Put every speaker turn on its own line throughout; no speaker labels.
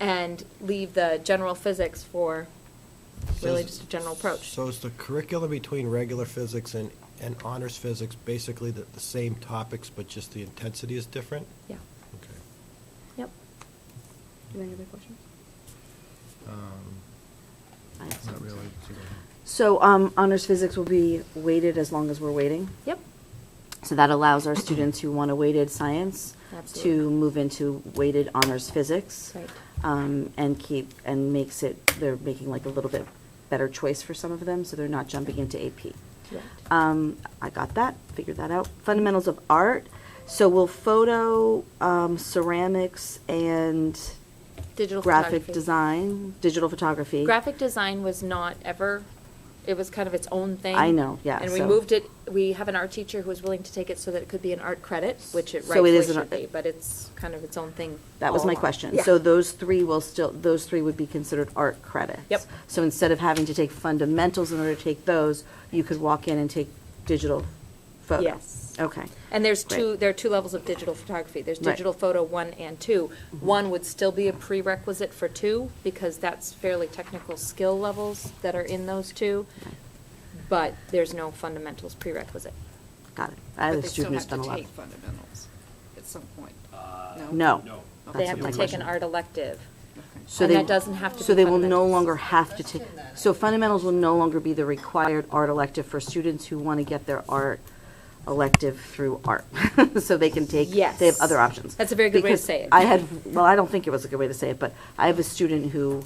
and leave the general physics for really
So is-
just a general approach.
So is the curriculum between regular physics and, and honors physics basically the, the same topics, but just the intensity is different?
Yeah,
Okay.
yep.
Do you have any other questions? I have some.
Um, Not really.
So, um, honors physics will be weighted as long as we're waiting?
Yep.
So that allows our students who want a weighted science to
Absolutely.
move into weighted honors physics.
Right.
Um, and keep, and makes it, they're making like a little bit better choice for some of them, so they're not jumping into AP.
Correct.
Um, I got that, figured that out. Fundamentals of art, so will photo, um, ceramics and
Digital
graphic
photography.
design, digital photography.
Graphic design was not ever, it was kind of its own thing.
I know, yeah,
And we
so-
moved it, we have an art teacher who was willing to take it so that it could be an art credit, which it
So it
rightfully
is an
should
art-
be, but it's kind of its own thing.
That was
all
my
along.
question.
Oh, Yeah.
So those three will still, those three would be considered art credits?
Yep.
So instead of having to take fundamentals in order to take those, you could walk in and take digital photo?
Yes.
Okay.
And there's two,
Great.
there are two levels of digital photography. There's
Right.
digital photo one and two. One would still be a prerequisite for two, because that's fairly technical skill levels that are in those two, but there's no fundamentals prerequisite.
Got it. I
But
have a
they
student who's done a
still have
lot.
to take fundamentals at some point.
Uh,
No.
No.
That's
oh. They
what
have
my
to take
question-
an art elective.
Okay.
So
and
they-
that doesn't have to
So
be
they will no
fundamentals.
longer have to take, so fundamentals will no longer be the required art elective for students who want to get their art elective through art. So they can take,
Yes.
they have other options.
That's a very good way to
Because
say it.
I had, well, I don't think it was a good way to say it, but I have a student who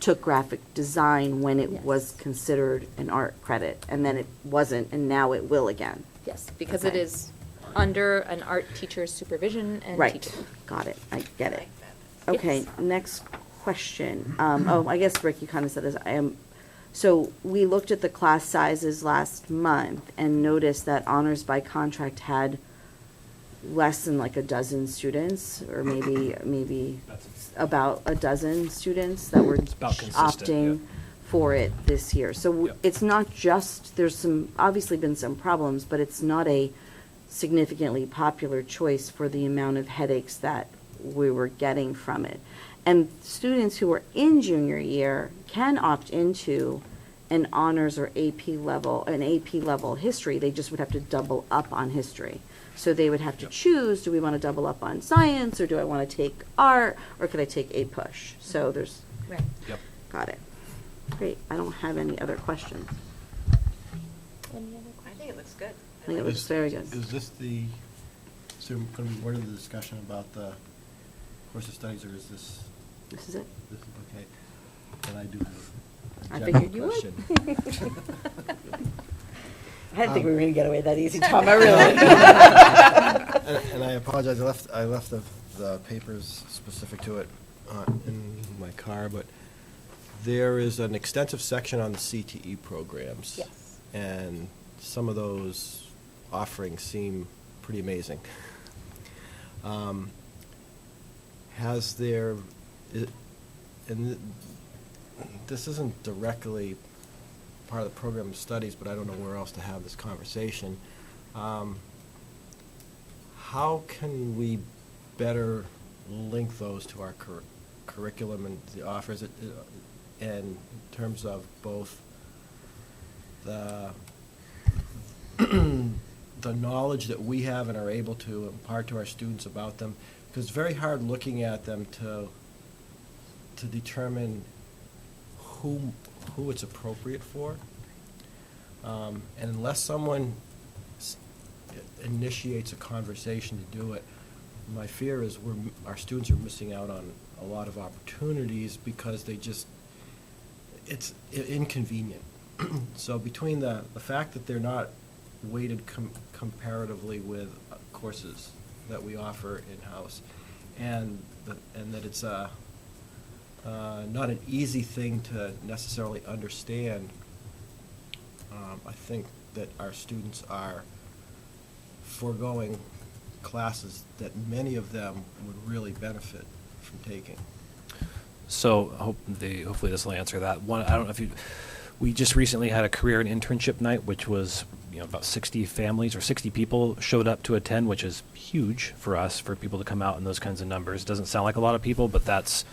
took graphic design when it
Yes.
was considered an art credit, and then it wasn't, and now it will again.
Yes, because it
Okay.
is under an art teacher's supervision and
Right,
teaching.
got it, I get it.
Yes.
Okay, next question. Um, oh, I guess Rick, you kind of said this, I am, so we looked at the class sizes last month and noticed that honors by contract had less than like a dozen students, or maybe, maybe
That's-
about a dozen students that were
It's about consistent,
opting
yeah.
for it this year. So w-
Yeah.
it's not just, there's some, obviously been some problems, but it's not a significantly popular choice for the amount of headaches that we were getting from it. And students who are in junior year can opt into an honors or AP level, an AP level history, they just would have to double up on history. So they would have to
Yep.
choose, do we want to double up on science, or do I want to take art, or could I take a push? So there's,
Right.
Yep.
got it. Great, I don't have any other questions.
I think it looks good.
I think it looks
Is-
very good.
Is this the, so going to be part of the discussion about the course of studies, or is this,
This is it?
this is okay? And I do
I
have a general
figured you would.
question.
I didn't think we were going to get away that easy,
Tom, I
really.
And and I apologize, I left, I left the, the papers specific to it uh, in my car, but
There is an extensive section on the CTE programs.
Yes.
And some of those offerings seem pretty amazing. Um, Has there, i- and th- this isn't directly part of the program of studies, but I don't know where else to have this conversation. Um, How can we better link those to our cur- curriculum and the offers, it- it- and in terms of both the, the knowledge that we have and are able to impart to our students about them? Because it's very hard looking at them to, to determine who, who it's appropriate for. Um, And unless someone s- initiates a conversation to do it, my fear is we're, m- our students are missing out on a lot of opportunities because they just, it's i- inconvenient. So between the, the fact that they're not weighted com- comparatively with uh, courses that we offer in-house, and, the- and that it's a, uh, not an easy thing to necessarily understand. Um, I think that our students are foregoing classes that many of them would really benefit from taking.
So I hope the, hopefully this will answer that. One, I don't know if you, we just recently had a career and internship night, which was, you know, about 60 families or 60 people showed up to attend, which is huge for us, for people to come out in those kinds of numbers. Doesn't sound like a lot of people, but that's